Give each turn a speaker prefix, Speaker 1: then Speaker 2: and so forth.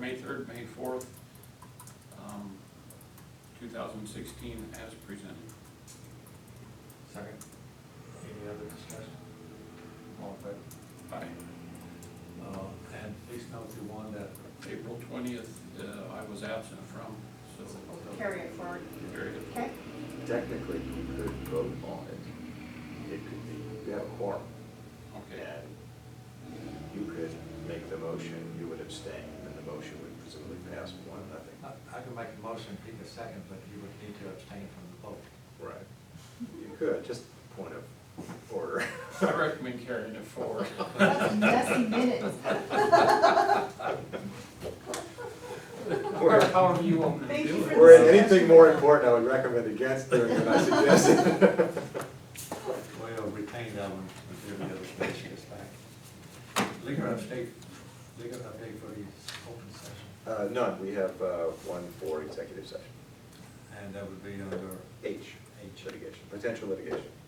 Speaker 1: May third, May fourth, um, two thousand sixteen as presented.
Speaker 2: Second. Any other discussion? All in favor?
Speaker 1: Aye.
Speaker 2: Uh, and please note the one that,
Speaker 1: April twentieth, uh, I was absent from, so.
Speaker 3: Carry it forward,
Speaker 1: Very good.
Speaker 3: okay?
Speaker 4: Technically, you could vote on it. It could be, you have a quorum,
Speaker 1: Okay.
Speaker 4: and you could make the motion, you would abstain, and the motion would presumably pass one,
Speaker 2: I,
Speaker 4: nothing.
Speaker 2: I can make a motion, pick a second, but you would need to abstain from the vote.
Speaker 4: Right. You could, just point of order.
Speaker 1: I recommend carrying it forward.
Speaker 3: That's messy minutes.
Speaker 1: Or however you want me to
Speaker 3: Thank
Speaker 1: do
Speaker 3: you
Speaker 1: it.
Speaker 3: for
Speaker 4: Or anything more important, I would recommend against doing than I suggested.
Speaker 2: We'll retain that one until the other page gets back. Legal update, legal update for the open session,
Speaker 4: Uh, none, we have, uh, one for executive session.
Speaker 2: and that would be under
Speaker 4: H,
Speaker 2: H.
Speaker 4: litigation, potential litigation.